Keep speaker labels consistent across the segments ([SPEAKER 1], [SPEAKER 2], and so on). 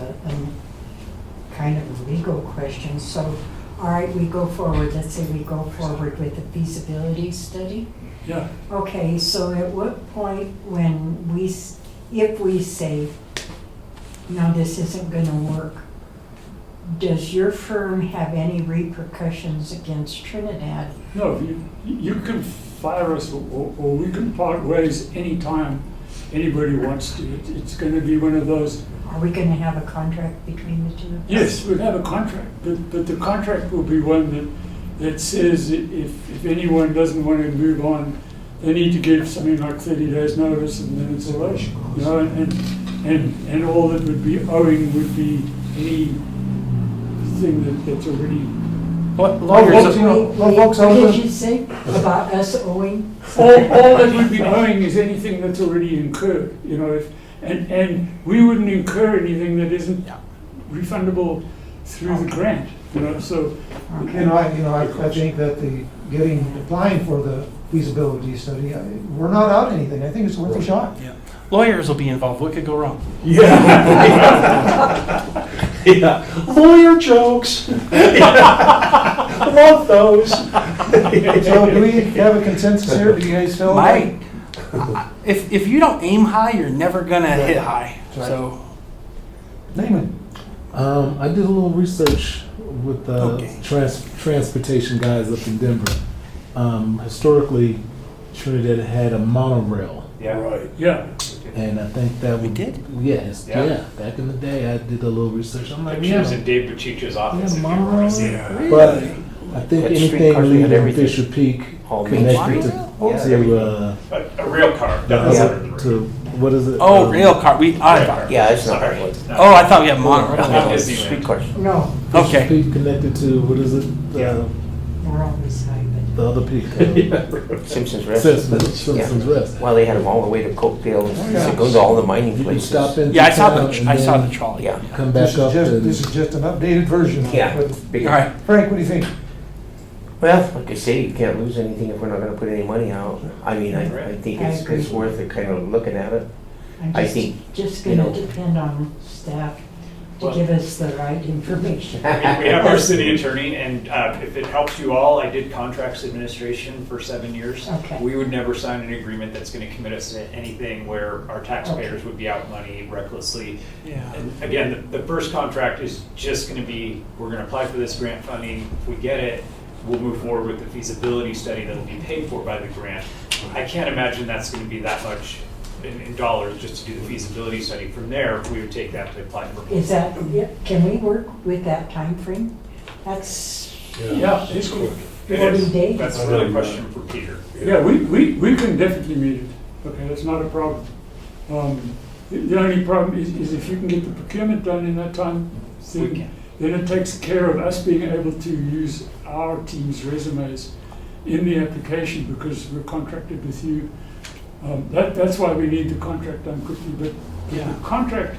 [SPEAKER 1] um, legal question, so, all right, we go forward, let's say we go forward with the feasibility study.
[SPEAKER 2] Yeah,
[SPEAKER 1] Okay, so at what point when we, s- if we say, no, this isn't gonna work, does your firm have any repercussions against Trinidad?
[SPEAKER 2] no, you, you can fire us or, or- or we can part ways anytime anybody wants to. It- It's gonna be one of those,
[SPEAKER 1] Are we gonna have a contract between the two? of us?
[SPEAKER 2] yes, we have a contract, but, but the contract will be one that, that says i- if, if anyone doesn't wanna move on, they need to give something like thirty days notice and then it's a rush, you know, and, and, and all that would be owing would be any thing that, that's already
[SPEAKER 3] What
[SPEAKER 2] Well,
[SPEAKER 3] lawyers,
[SPEAKER 2] you know,
[SPEAKER 1] Wait,
[SPEAKER 3] folks,
[SPEAKER 1] What
[SPEAKER 3] over-
[SPEAKER 1] did you say about us owing?
[SPEAKER 2] All, all that would be owing is anything that's already incurred, you know, if, and, and we wouldn't incur anything that isn't
[SPEAKER 3] Yeah.
[SPEAKER 2] refundable through the grant, you know, so,
[SPEAKER 1] Okay.
[SPEAKER 4] You know, I, you know, I, I think that the, getting, applying for the feasibility study, I- we're not out anything, I think it's worth a shot.
[SPEAKER 3] lawyers will be involved. What could go wrong?
[SPEAKER 5] Yeah, lawyer jokes. Love those.
[SPEAKER 4] So do we have a consensus here, do you guys feel? like-
[SPEAKER 3] Mike, I- if, if you don't aim high, you're never gonna hit high.
[SPEAKER 4] Right.
[SPEAKER 3] So,
[SPEAKER 4] Naaman?
[SPEAKER 5] Um, I did a little research with the
[SPEAKER 3] Okay.
[SPEAKER 5] trans- transportation guys up in Denver. Um, historically, Trinidad had a monorail,
[SPEAKER 6] Right.
[SPEAKER 2] yeah.
[SPEAKER 5] and I think that
[SPEAKER 3] We
[SPEAKER 5] would-
[SPEAKER 3] did?
[SPEAKER 5] Yes, yeah.
[SPEAKER 6] Yeah.
[SPEAKER 5] Back in the day, I did a little research. I'm like,
[SPEAKER 6] Like, she was
[SPEAKER 5] yeah,
[SPEAKER 6] in Dave Pachicha's
[SPEAKER 5] yeah,
[SPEAKER 6] office. if you
[SPEAKER 5] monorail.
[SPEAKER 6] want to see her.
[SPEAKER 5] But I think
[SPEAKER 7] Had
[SPEAKER 5] anything
[SPEAKER 7] streetcars, we had
[SPEAKER 5] leaving
[SPEAKER 7] everything.
[SPEAKER 5] Fisher Peak
[SPEAKER 6] Oh,
[SPEAKER 7] All
[SPEAKER 5] connected to,
[SPEAKER 3] Monorail?
[SPEAKER 7] Yeah,
[SPEAKER 5] to, uh,
[SPEAKER 6] A, a real car.
[SPEAKER 5] the
[SPEAKER 6] That was
[SPEAKER 5] other-
[SPEAKER 6] under the
[SPEAKER 5] to
[SPEAKER 6] roof.
[SPEAKER 5] what is it?
[SPEAKER 3] oh,
[SPEAKER 5] Um,
[SPEAKER 3] rail car, we, I thought,
[SPEAKER 7] Yeah, it's not.
[SPEAKER 6] Sorry.
[SPEAKER 7] really-
[SPEAKER 3] oh, I thought we had
[SPEAKER 6] Not
[SPEAKER 3] monorail.
[SPEAKER 6] Disneyland.
[SPEAKER 7] Streetcars.
[SPEAKER 1] No,
[SPEAKER 5] Fisher
[SPEAKER 3] Okay.
[SPEAKER 5] Peak connected to what is it?
[SPEAKER 6] Yeah.
[SPEAKER 5] Uh,
[SPEAKER 1] we're on this side,
[SPEAKER 5] the other peak. Uh,
[SPEAKER 7] Simpsons Rest.
[SPEAKER 5] Simpsons, Simpsons
[SPEAKER 7] Yeah.
[SPEAKER 5] Rest.
[SPEAKER 7] Well, they had them all the way to Cokeville,
[SPEAKER 4] Yeah.
[SPEAKER 7] Secunda, all the mining
[SPEAKER 5] You can
[SPEAKER 7] places.
[SPEAKER 5] stop into
[SPEAKER 3] Yeah, I saw
[SPEAKER 5] town
[SPEAKER 3] the,
[SPEAKER 5] and
[SPEAKER 3] I saw
[SPEAKER 5] then
[SPEAKER 3] the trolley.
[SPEAKER 7] Yeah.
[SPEAKER 5] Come
[SPEAKER 4] This
[SPEAKER 5] back
[SPEAKER 4] is
[SPEAKER 5] up
[SPEAKER 4] just,
[SPEAKER 5] and
[SPEAKER 4] this is just an updated version of
[SPEAKER 7] Yeah.
[SPEAKER 4] it.
[SPEAKER 7] big-
[SPEAKER 3] All right,
[SPEAKER 4] but Frank, what do you think?
[SPEAKER 7] Well, like I say, you can't lose anything if we're not gonna put any money out. I mean, I, I think
[SPEAKER 1] I
[SPEAKER 7] it's,
[SPEAKER 1] agree.
[SPEAKER 7] it's worth it, kind of looking at it.
[SPEAKER 1] but
[SPEAKER 7] I
[SPEAKER 1] I'm just,
[SPEAKER 7] think,
[SPEAKER 1] just
[SPEAKER 7] you
[SPEAKER 1] gonna
[SPEAKER 7] know-
[SPEAKER 1] depend on staff to
[SPEAKER 6] Well-
[SPEAKER 1] give us the right information.
[SPEAKER 6] We we have our city attorney, and uh, if it helps you all, I did contracts administration for seven years.
[SPEAKER 1] Okay.
[SPEAKER 6] We would never sign an agreement that's going to commit us to anything where our taxpayers would be out money recklessly.
[SPEAKER 3] yeah.
[SPEAKER 6] And again, the the first contract is just going to be, we're going to apply for this grant funding. If we get it, we'll move forward with the feasibility study that'll be paid for by the grant. I can't imagine that's going to be that much in in dollars just to do the feasibility study. From there, we would take that to apply for.
[SPEAKER 1] Is that, yeah, can we work with that time frame? That's,
[SPEAKER 2] Yeah, it's cool.
[SPEAKER 6] It
[SPEAKER 1] Forty
[SPEAKER 6] is.
[SPEAKER 1] days.
[SPEAKER 6] That's really a question for Peter.
[SPEAKER 2] Yeah, we, we, we can definitely meet it, okay, that's not a problem. Um, the, the only problem is, is if you can get the procurement done in that time,
[SPEAKER 6] We can.
[SPEAKER 2] then, then it takes care of us being able to use our team's resumes in the application because we're contracted with you. Um, that, that's why we need the contract done quickly, but
[SPEAKER 3] Yeah.
[SPEAKER 2] the contract,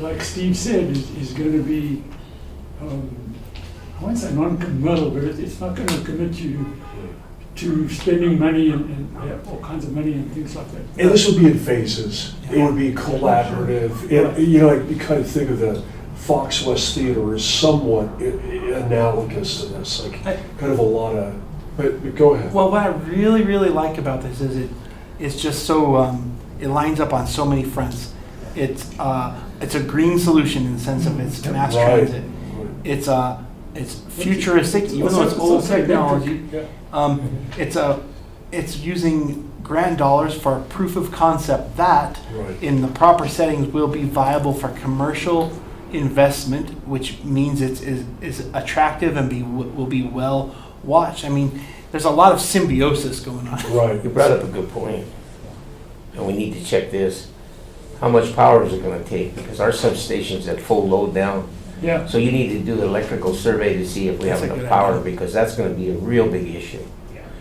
[SPEAKER 2] like Steve said, is, is gonna be, um, I won't say non-committal, but it, it's not gonna commit you to spending money and, and yeah, all kinds of money and things like that.
[SPEAKER 8] And this would be in phases. It would be collaborative. It- You know, you kind of think of the Fox West Theater as somewhat i- i- analogous to this, like
[SPEAKER 3] I-
[SPEAKER 8] kind of a lot of, but but go ahead.
[SPEAKER 3] Well, what I really, really like about this is it, it's just so, um, it lines up on so many fronts. It's, uh, it's a green solution in the sense of it's mass
[SPEAKER 8] Right.
[SPEAKER 3] transit. It's, uh, it's futuristic, even though it's
[SPEAKER 2] So- so-
[SPEAKER 3] old
[SPEAKER 2] so-
[SPEAKER 3] technology.
[SPEAKER 2] Yeah.
[SPEAKER 3] Um, it's a, it's using grant dollars for a proof of concept that
[SPEAKER 8] Right.
[SPEAKER 3] in the proper settings will be viable for commercial investment, which means it's, is, is attractive and be, will be well watched. I mean, there's a lot of symbiosis going on.
[SPEAKER 8] Right.
[SPEAKER 7] You brought up a good point. And we need to check this. How much power is it gonna take? Because our substation's at full load now.
[SPEAKER 2] Yeah,
[SPEAKER 7] So you need to do the electrical survey to see if we have
[SPEAKER 3] That's a
[SPEAKER 7] enough
[SPEAKER 3] good
[SPEAKER 7] power,
[SPEAKER 3] idea.
[SPEAKER 7] because that's gonna be a real big issue.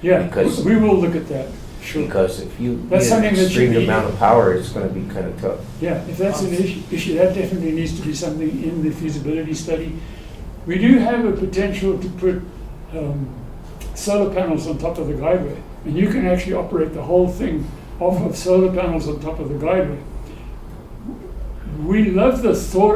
[SPEAKER 2] yeah,
[SPEAKER 7] Because-
[SPEAKER 2] we will look at that, sure.
[SPEAKER 7] Because if you
[SPEAKER 2] That's
[SPEAKER 7] get an
[SPEAKER 2] something that you
[SPEAKER 7] extreme
[SPEAKER 2] need-
[SPEAKER 7] amount of power, it's gonna be kinda tough.
[SPEAKER 2] Yeah, if that's an issue, issue, that definitely needs to be something in the feasibility study. We do have a potential to put um, solar panels on top of the guideway, and you can actually operate the whole thing off of solar panels on top of the guideway. We love the thought